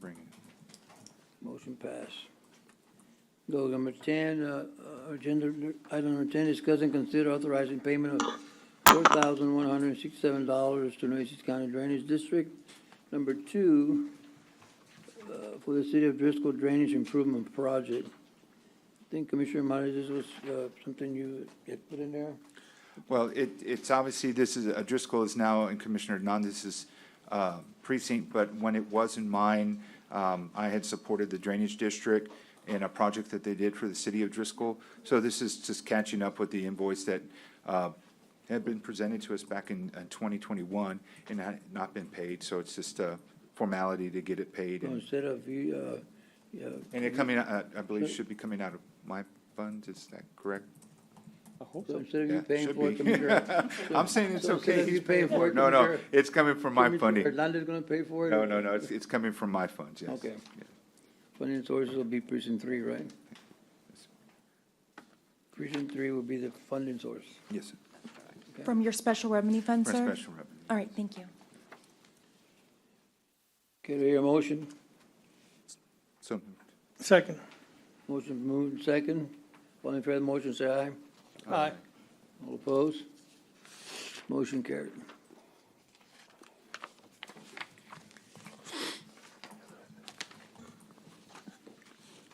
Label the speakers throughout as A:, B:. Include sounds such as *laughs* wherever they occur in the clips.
A: bring it.
B: Motion pass. Go to number ten, uh, uh, agenda, item number ten, discuss and consider authorizing payment of four thousand one hundred and sixty-seven dollars to Nueces County Drainage District. Number two, uh, for the City of Driscoll Drainage Improvement Project. I think Commissioner Morales, this was, uh, something you had put in there?
A: Well, it, it's obviously, this is, uh, Driscoll is now in Commissioner Hernandez's uh, precinct, but when it was in mine, um, I had supported the Drainage District in a project that they did for the city of Driscoll. So this is just catching up with the invoice that uh, had been presented to us back in uh, 2021 and had not been paid. So it's just a formality to get it paid.
B: So
A: And
B: Instead of you, uh, uh,
A: and it coming, uh, I believe, should be coming out of my funds, is that correct?
B: so instead of
A: Yeah,
B: you paying
A: should
B: for it,
A: be.
B: Commissioner.
A: *laughs* I'm saying it's
B: So instead
A: okay.
B: of
A: He's
B: you paying for it,
A: No, no,
B: Commissioner-
A: it's coming from my
B: Commissioner
A: funding.
B: Hernandez gonna pay for it?
A: No, no, no, it's, it's coming from my funds, yes.
B: Okay.
A: Yeah.
B: Funding sources will be precinct three, right? Precinct three will be the funding source.
A: Yes, sir.
C: From your special revenue fund,
A: for
C: sir?
A: special revenue.
C: All right, thank you.
B: Okay, do I hear a motion?
A: So,
D: Second.
B: Motion moved and second. All in favor of the motion, say aye.
D: Aye.
B: All opposed? Motion carried.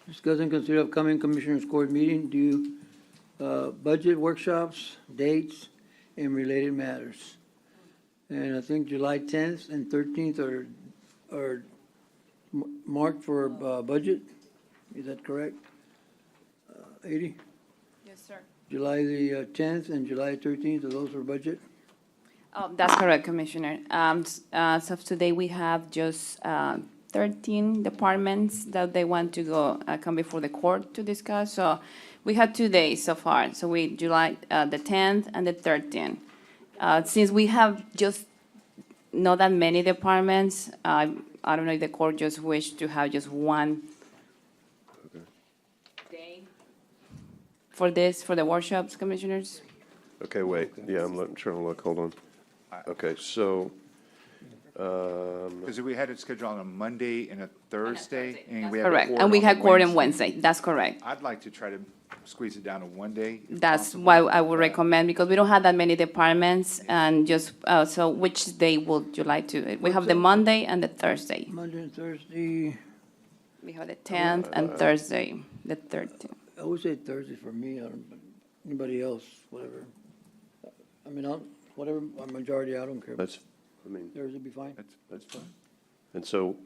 B: Discuss and consider upcoming Commissioners Court meeting, do, uh, budget workshops, dates, and related matters. And I think July tenth and thirteenth are, are m- marked for, uh, budget, is that correct? Uh, Eighty?
E: Yes, sir.
B: July the uh, tenth and July thirteenth, are those for budget?
E: Um, That's correct, Commissioner. Um, s- uh, As of today, we have just uh, 13 departments that they want to go, uh, come before the court to discuss. So we had two days so far, so we, July uh, the 10th and the 13th. Uh, Since we have just not that many departments, uh, I don't know if the court just wished to have just one day for this, for the workshops, Commissioners?
F: Okay, wait, yeah, I'm looking, trying to look, hold on. Okay, so, um,
A: because we had it scheduled on a Monday and a Thursday, and
E: That's
A: we had a
E: Correct,
A: court
E: and we
A: on a
E: had court on
A: Wednesday.
E: Wednesday, that's correct.
A: I'd like to try to squeeze it down to one day. if
E: That's
A: possible.
E: why I would recommend, because we don't have that many departments, and just, uh, so which day would you like to? We have the Monday and the Thursday.
B: Monday and Thursday,
E: We have the tenth
A: Uh,
E: and Thursday, the thirteenth.
B: I would say Thursday for me, I don't- anybody else, whatever. I mean, I'll, whatever, a majority, I don't care.
F: that's, I mean,
B: Thursday be fine?
A: That's-
F: that's fine. And so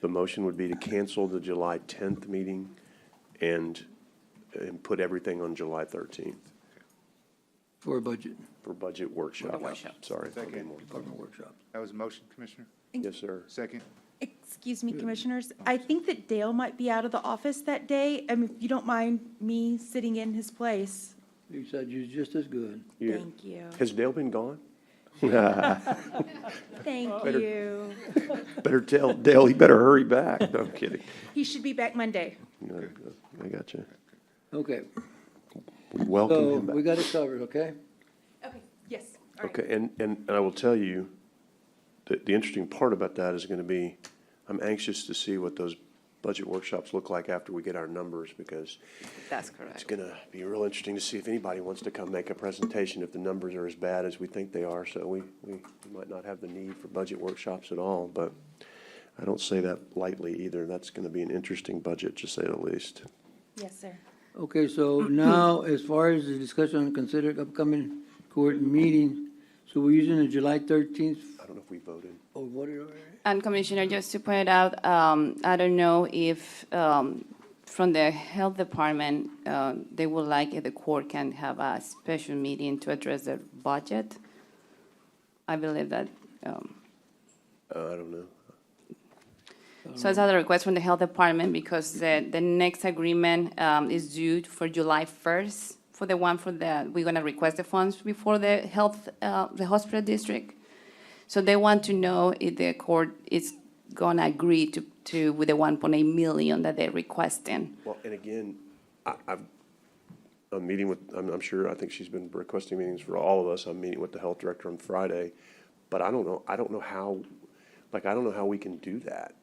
F: the motion would be to cancel the July 10th meeting and, and put everything on July 13th
B: For a budget,
F: for budget workshop. Sorry. I mean, more-
B: department workshop.
A: That was a motion, Commissioner?
F: Yes, sir.
A: Second?
C: Excuse me, Commissioners, I think that Dale might be out of the office that day. I mean, if you don't mind me sitting in his place,
B: You said you're just as good.
F: You-
C: thank you.
F: Has Dale been gone? *laughs*
C: Thank you.
F: Better tell Dale, he better hurry back. No, I'm kidding.
C: He should be back Monday.
F: No, I got you.
B: Okay,
F: We welcome
B: so
F: him back.
B: we got it covered, okay?
C: Okay, yes, all right.
F: Okay, and, and, and I will tell you, that the interesting part about that is gonna be, I'm anxious to see what those budget workshops look like after we get our numbers, because
E: That's
F: it's
E: correct.
F: gonna be real interesting to see if anybody wants to come make a presentation, if the numbers are as bad as we think they are, so we, we we might not have the need for budget workshops at all, but I don't say that lightly either, that's gonna be an interesting budget, to say the least.
C: Yes, sir.
B: Okay, so now, as far as the discussion on considered upcoming court meeting, so we're using the July thirteenth,
F: I don't know if we voted.
B: or what, or?
E: And Commissioner, just to point out, um, I don't know if, um, from the Health Department, uh, they would like if the court can have a special meeting to address the budget. I believe that, um,
F: Uh, I don't know.
E: So it's another request from the health department because the, the next agreement um, is due for July first for the one for the, we're gonna request the funds before the health, uh, the hospital district. So they want to know if the court is gonna agree to, to, with the one point eight million that they're requesting.
F: Well, and again, I, I'm, I'm meeting with, I'm, I'm sure, I think she's been requesting meetings for all of us. I'm meeting with the health director on Friday. But I don't know, I don't know how, like, I don't know how we can do that.